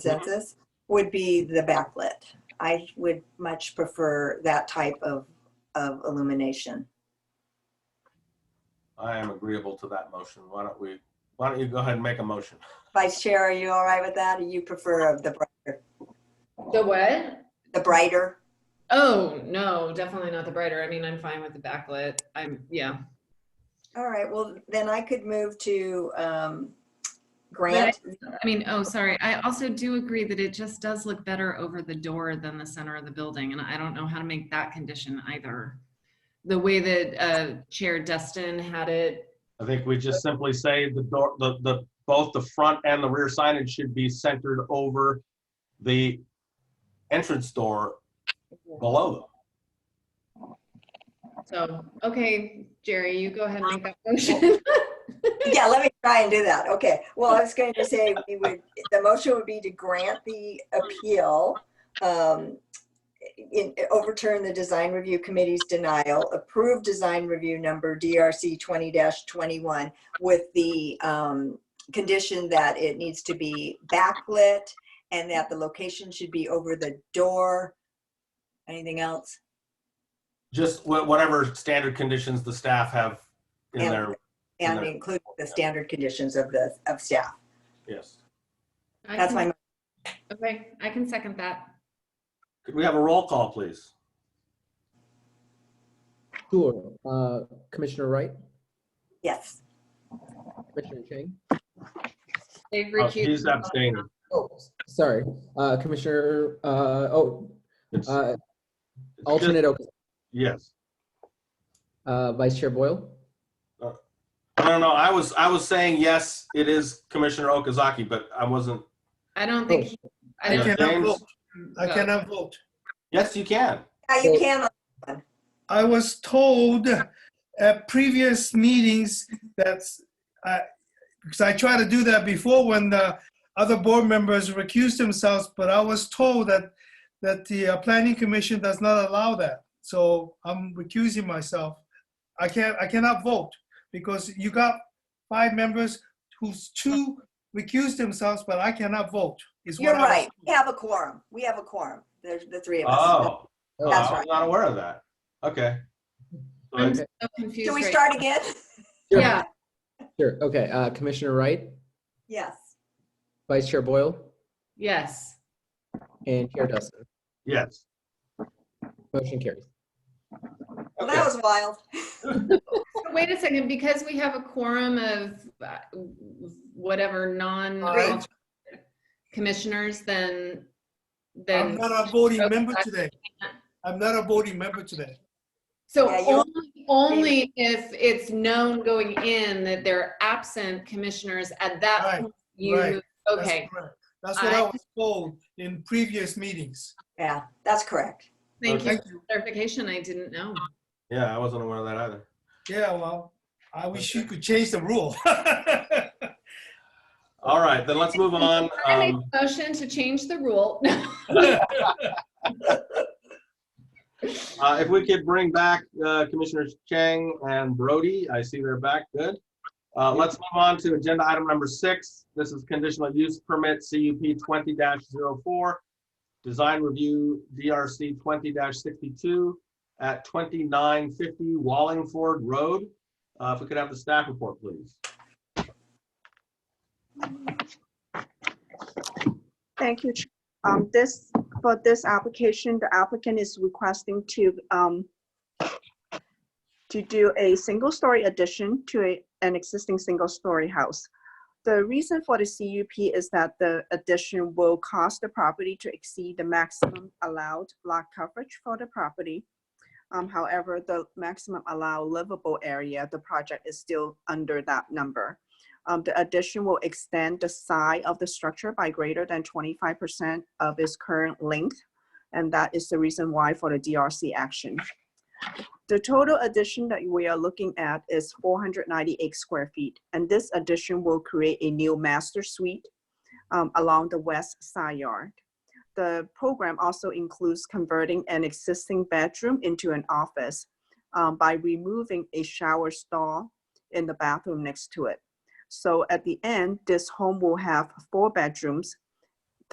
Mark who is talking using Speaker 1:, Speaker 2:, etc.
Speaker 1: consensus, would be the backlit. I would much prefer that type of, of illumination.
Speaker 2: I am agreeable to that motion. Why don't we, why don't you go ahead and make a motion?
Speaker 1: Vice Chair, are you all right with that? Or you prefer the, bri-
Speaker 3: The what?
Speaker 1: the brighter?
Speaker 3: Oh, no, definitely not the brighter. I mean, I'm fine with the backlit. I'm, yeah.
Speaker 1: All right, well, then I could move to um, grant.
Speaker 3: I mean, oh, sorry. I also do agree that it just does look better over the door than the center of the building. And I don't know how to make that condition either. The way that uh, Chair Destin had it,
Speaker 2: I think we just simply say the door, the, the, both the front and the rear signage should be centered over the entrance door below them.
Speaker 3: so, okay, Jerry, you go ahead and make that motion.
Speaker 1: Yeah, let me try and do that. Okay, well, I was going to say, we would, the motion would be to grant the appeal, um, in- overturn the design review committee's denial, approve design review number DRC 20-21 with the um, condition that it needs to be backlit and that the location should be over the door. Anything else?
Speaker 2: Just wha- whatever standard conditions the staff have in
Speaker 1: Yeah.
Speaker 2: their,
Speaker 1: And
Speaker 2: No.
Speaker 1: include the standard conditions of the, of staff.
Speaker 2: yes.
Speaker 3: I
Speaker 1: That's
Speaker 3: can-
Speaker 1: my,
Speaker 3: Okay, I can second that.
Speaker 2: Could we have a roll call, please?
Speaker 4: Sure. Uh, Commissioner Wright,
Speaker 1: yes.
Speaker 4: Commissioner Chang.
Speaker 3: They've
Speaker 2: Oh,
Speaker 3: recused
Speaker 2: He's abstaining.
Speaker 4: Oh, s- sorry. Uh, Commissioner, uh, oh,
Speaker 2: It's-
Speaker 4: uh,
Speaker 2: it's just-
Speaker 4: alternate, okay.
Speaker 2: Yes.
Speaker 4: uh, Vice Chair Boyle.
Speaker 2: I don't know. I was, I was saying, yes, it is Commissioner Okazaki, but I wasn't.
Speaker 3: I don't think, he- I
Speaker 5: I
Speaker 3: don't,
Speaker 2: Oh. Yeah,
Speaker 5: cannot
Speaker 2: James?
Speaker 5: vote. I
Speaker 3: Yeah.
Speaker 5: cannot vote.
Speaker 2: Yes, you can.
Speaker 1: Yeah, you
Speaker 4: Well-
Speaker 1: can,
Speaker 5: I was told at previous meetings that's, because I tried to do that before when the other board members recused themselves, but I was told that, that the uh, planning commission does not allow that. So I'm recusing myself. I can't, I cannot vote because you got five members who's two recused themselves, but I cannot vote. is what
Speaker 1: You're
Speaker 5: I was
Speaker 1: right.
Speaker 5: told.
Speaker 1: We have a quorum. We have a quorum. There's the three of us.
Speaker 2: Oh, oh,
Speaker 1: That's
Speaker 2: I was
Speaker 1: right.
Speaker 2: not aware of that. Okay. So
Speaker 3: I'm
Speaker 2: it's-
Speaker 3: so confused.
Speaker 1: Should we
Speaker 3: right
Speaker 1: start again?
Speaker 4: Sure,
Speaker 3: Yeah,
Speaker 4: Sure. Okay. Uh, Commissioner Wright,
Speaker 1: Yes.
Speaker 4: Vice Chair Boyle,
Speaker 3: yes.
Speaker 4: and Chair Dustin.
Speaker 2: Yes.
Speaker 4: Motion carries.
Speaker 1: Well, that was wild.
Speaker 3: Wait a second, because we have a quorum of uh, whatever non
Speaker 5: Right.
Speaker 3: commissioners, then,
Speaker 5: I'm
Speaker 3: then,
Speaker 5: not a voting
Speaker 3: Okay.
Speaker 5: member today. I'm not a voting member today.
Speaker 3: so
Speaker 1: Yeah, you-
Speaker 3: only, only if it's known going in that they're absent commissioners at that
Speaker 5: Right,
Speaker 3: point, you,
Speaker 5: right. That's
Speaker 3: okay,
Speaker 5: correct. That's what I
Speaker 3: I-
Speaker 5: was told in previous meetings.
Speaker 1: Yeah, that's correct.
Speaker 3: thank you
Speaker 2: Okay.
Speaker 3: for clarification, I didn't know.
Speaker 2: Yeah, I wasn't aware of that either.
Speaker 5: Yeah, well, I wish you could change the rule.
Speaker 2: All right, then let's move on.
Speaker 3: I make
Speaker 2: Um,
Speaker 3: a motion to change the rule.
Speaker 2: uh, if we could bring back uh, Commissioners Chang and Brody, I see they're back. Good. Uh, let's move on to agenda item number six. This is conditional use permit CUP 20-04, design review DRC 20-62 at 2950 Wallingford Road. Uh, if we could have the staff report, please.
Speaker 6: Thank you. Ch- Um, this, for this application, the applicant is requesting to, um, to do a single-story addition to a, an existing single-story house. The reason for the CUP is that the addition will cause the property to exceed the maximum allowed lot coverage for the property. Um, however, the maximum allowed livable area, the project is still under that number. Um, the addition will extend the side of the structure by greater than twenty-five percent of its current length. And that is the reason why for the DRC action. The total addition that we are looking at is four hundred ninety-eight square feet. And this addition will create a new master suite um, along the west side yard. The program also includes converting an existing bedroom into an office um, by removing a shower stall in the bathroom next to it. So at the end, this home will have four bedrooms,